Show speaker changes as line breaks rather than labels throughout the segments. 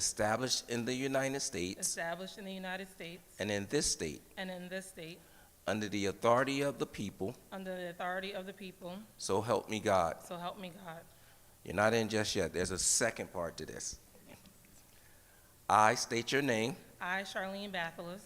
established in the United States
established in the United States
and in this state,
and in this state,
under the authority of the people,
under the authority of the people,
so help me God.
so help me God.
You're not in just yet. There's a second part to this. I state your name,
I, Charlene Bathelus,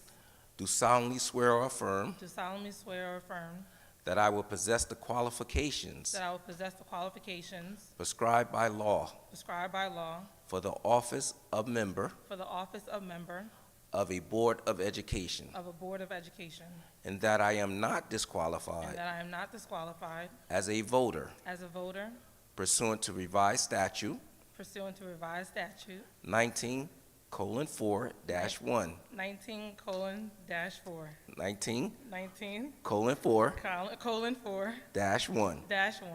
do solemnly swear or affirm
do solemnly swear or affirm
that I will possess the qualifications
that I will possess the qualifications
prescribed by law
prescribed by law
for the office of member
for the office of member
of a Board of Education,
of a Board of Education,
and that I am not
and
disqualified
that I am not disqualified
as a voter
as a voter
pursuant to revised statute
pursuant to revised statute
19 colon 4 dash 1,
19 colon dash 4,
19
19
colon 4
col- colon 4
dash 1,
dash 1,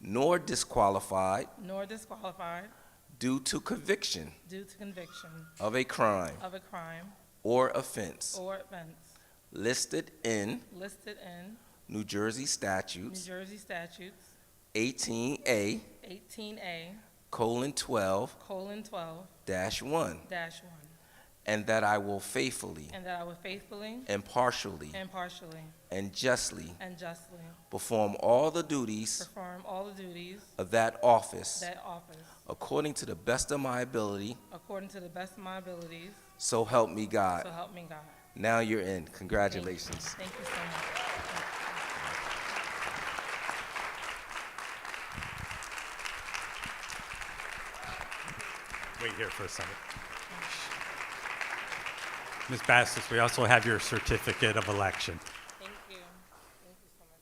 nor disqualified
nor disqualified
due to conviction
due to conviction
of a crime
of a crime
or offense
or offense
listed in
listed in
New Jersey
New
statutes
Jersey statutes
18A
18A
colon 12
colon 12
dash 1,
dash 1,
and that I will faithfully,
and that I will faithfully,
impartially,
impartially,
and justly
and justly
perform all the duties
perform all the duties
of that office
that office
according to the best of my ability,
according to the best of my abilities,
so help me God.
so help me God.
Now you're in.
Thank you.
Congratulations.
Thank you so much.
Wait here for a second. Ms. Bassis, we also have your certificate of election.
Thank you. Thank you so much.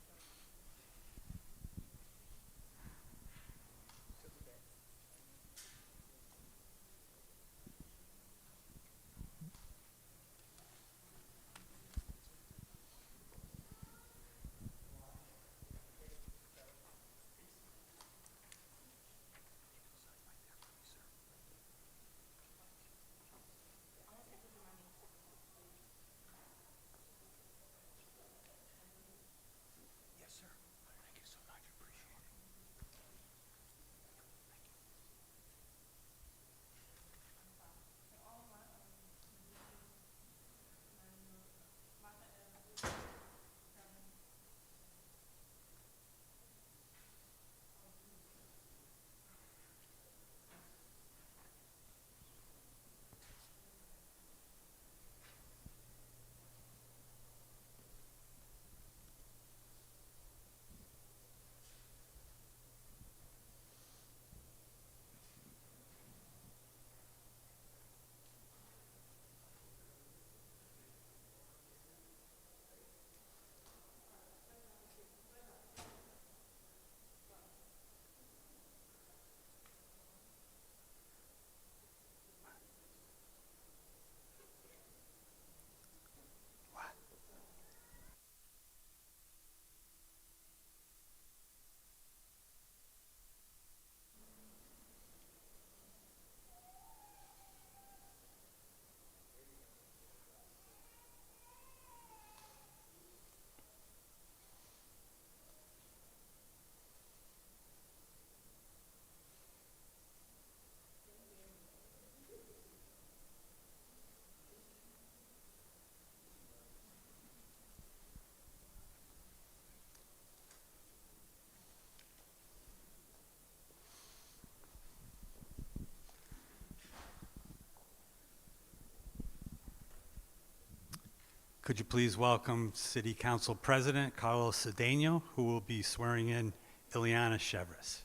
Could you please welcome City Council President Carlos Cedeno, who will be swearing in Ileana Chevres?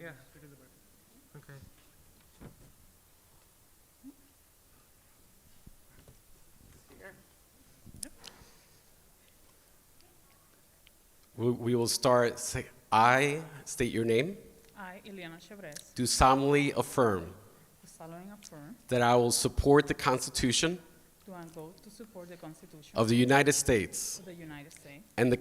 Yeah, stick in the back. Okay.
We- We will start, say, I state your name,
I, Ileana Chevres,
do solemnly affirm
do solemnly affirm
that I will support the Constitution
to and vote to support the Constitution
of the United States
of the United States
and the